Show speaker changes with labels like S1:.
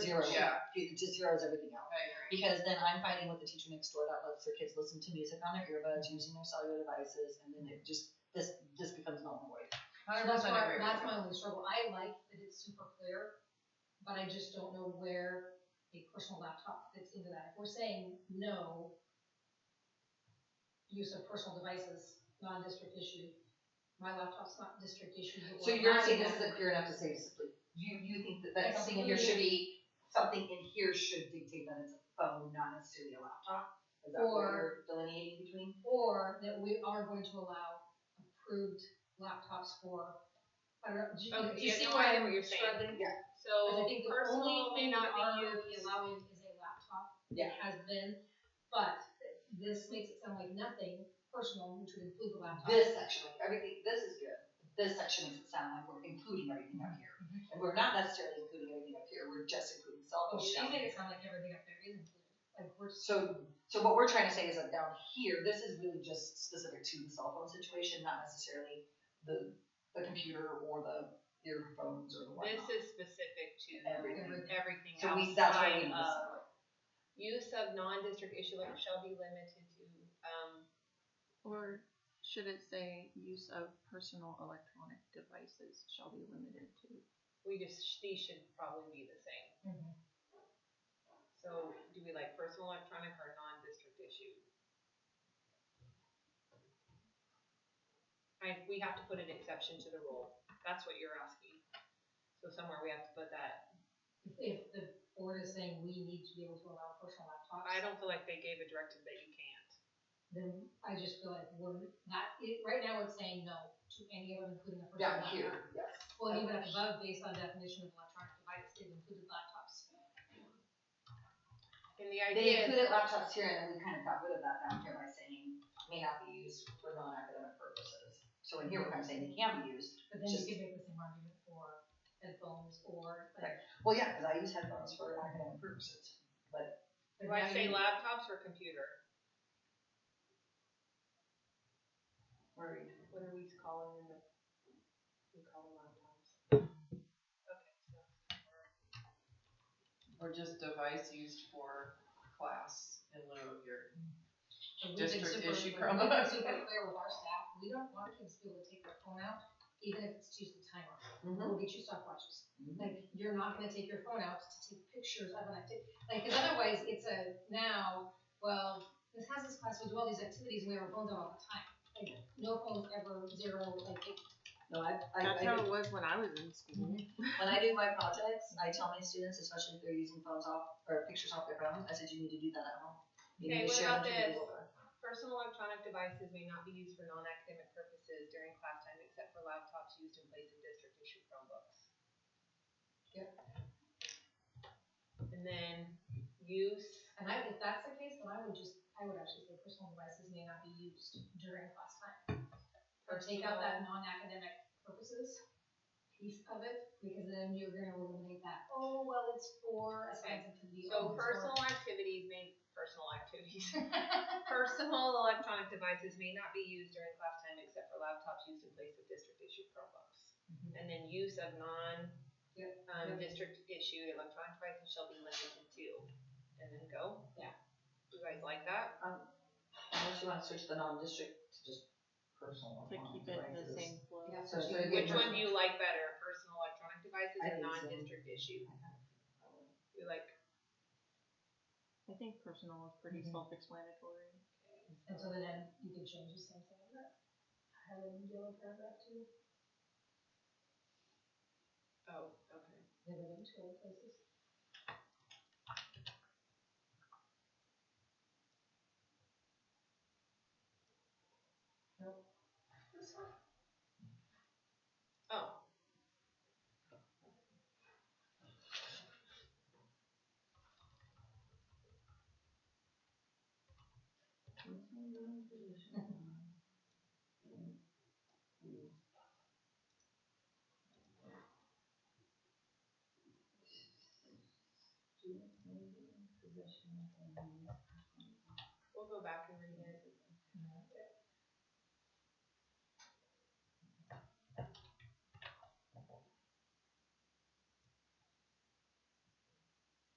S1: zero.
S2: Yeah.
S1: You could just zeros everything out.
S2: I
S1: Because then I'm fighting with the teacher next door that lets their kids listen to music on their earbuds, using their cellular devices, and then it just, this, this becomes null and void.
S2: agree.
S3: That's why,
S2: 100%
S3: that's
S2: agree.
S3: my only struggle, I like that it's super clear, but I just don't know where a personal laptop fits into that. If we're saying no use of personal devices, non-district issue, my laptop's not district issue. but
S1: So
S3: we're
S1: you're saying
S3: allowing
S1: this
S3: that.
S1: isn't clear enough to say simply, you, you think that
S3: I
S1: that
S3: don't
S1: thing in here
S3: believe-
S1: should be, something in here should dictate that it's a phone, not necessarily a laptop? Is that what
S3: Or-
S1: you're delineating between?
S3: Or that we are going to allow approved laptops for, I don't know, do you,
S4: Okay,
S3: do you
S4: yeah,
S3: see
S4: no,
S3: why
S4: I
S3: I'm
S4: get
S3: struggling?
S4: what you're saying.
S3: Because I
S4: So
S3: think the
S4: personally
S3: only
S4: may not be
S3: RRP
S4: used.
S3: allowed is a laptop.
S1: Yeah.
S3: It has been, but this makes it sound like nothing personal, which would include the laptop.
S1: This section, like everything, this is good, this section makes it sound like we're including everything up here. And we're not necessarily including everything up here, we're just including cell
S3: Oh,
S1: phones
S3: she
S1: down
S3: made
S1: here.
S3: it sound like everything up there is included, like we're.
S1: So, so what we're trying to say is that down here, this is really just specific to the cell phone situation, not necessarily the, the computer or the earphones or the
S4: This
S1: whatnot.
S4: is specific to
S1: Everything.
S4: everything
S1: So we, that's why we
S4: outside
S1: need
S4: of
S1: this.
S4: use of non-district issue letters shall be limited to, um,
S5: Or should it say use of personal electronic devices shall be limited to?
S4: we just, these should probably be the same. So do we like personal electronic or non-district issue? I, we have to put an exception to the rule. That's what you're asking. So somewhere we have to put that.
S3: If- If the board is saying we need to be able to allow personal laptops.
S4: I don't feel like they gave a directive that you can't.
S3: Then I just feel like we're not, it, right now it's saying no to any of them, including the
S1: Down
S3: personal laptop.
S1: here, yes.
S3: Well, even up above, based on definition of electronic device, they've included laptops.
S4: And the
S1: They
S4: idea,
S1: included laptops here and then we kind of got rid of that down here by saying may not be used for non-academic purposes. So in here, we're kind of saying they can be used.
S3: But then you
S1: Just-
S3: could make the same argument for headphones or like.
S1: Well, yeah, because I use headphones for academic purposes.
S4: do I say laptops or computer?
S1: Where are you?
S4: What are we calling them? We call them laptops. Okay, so.
S6: Or just device used for class in lieu of your.
S3: And we've been
S6: district
S3: super-
S6: issue
S3: we've
S6: Chromebook.
S3: been Super clear with our staff, we don't want kids to be able to take their phone out, even if it's to use the timer,
S6: Mm-hmm.
S3: we'll get you stopwatches. Like, you're not gonna take your phone out to take pictures of an activity, like, cause otherwise, it's a now, well, this has this class, we do all these activities, and we have our phones out all the time. Like, no phones ever, zero, like, it-
S1: No, I, I, I
S5: That's
S1: do
S5: how it was when I was in school.
S1: When I do my projects, I tell my students, especially if they're using phones off or pictures off their phone, I said you need to do that at home. You need
S4: Okay,
S1: to
S4: what
S1: share
S4: about
S1: them to
S4: this?
S1: people.
S4: Personal electronic devices may not be used for non-academic purposes during class time except for laptops used in place of district issued Chromebooks. Yep. And then use,
S3: and I, if that's the case, then I would just, I would actually say personal devices may not be used during class time. Or take out that non-academic purposes piece of it, because then you're gonna eliminate that, oh, well, it's for a science activity.
S4: so
S3: oh, it's for-
S4: personal activities may, personal activities. Personal electronic devices may not be used during class time except for laptops used in place of district issued Chromebooks. And then use of non,
S3: Yep.
S4: um, district issued electronic devices shall be limited to, and then go.
S3: Yeah.
S4: You guys like that?
S1: Um, Unless you want to switch the non-district to just personal.
S5: To keep it in the
S1: devices.
S5: same flow.
S3: Yeah,
S1: So, so
S3: you-
S1: again,
S4: Which
S1: personal-
S4: one do you like better, personal electronic devices
S1: I
S4: or
S1: think so.
S4: non-district issue? You like,
S5: I think personal is pretty
S1: Mhm.
S5: self-explanatory.
S3: And so then you can change the same thing, but I would deal with paragraph two,
S4: oh, okay.
S3: limiting to all places. Nope. This one?
S4: Oh. We'll go back and read it.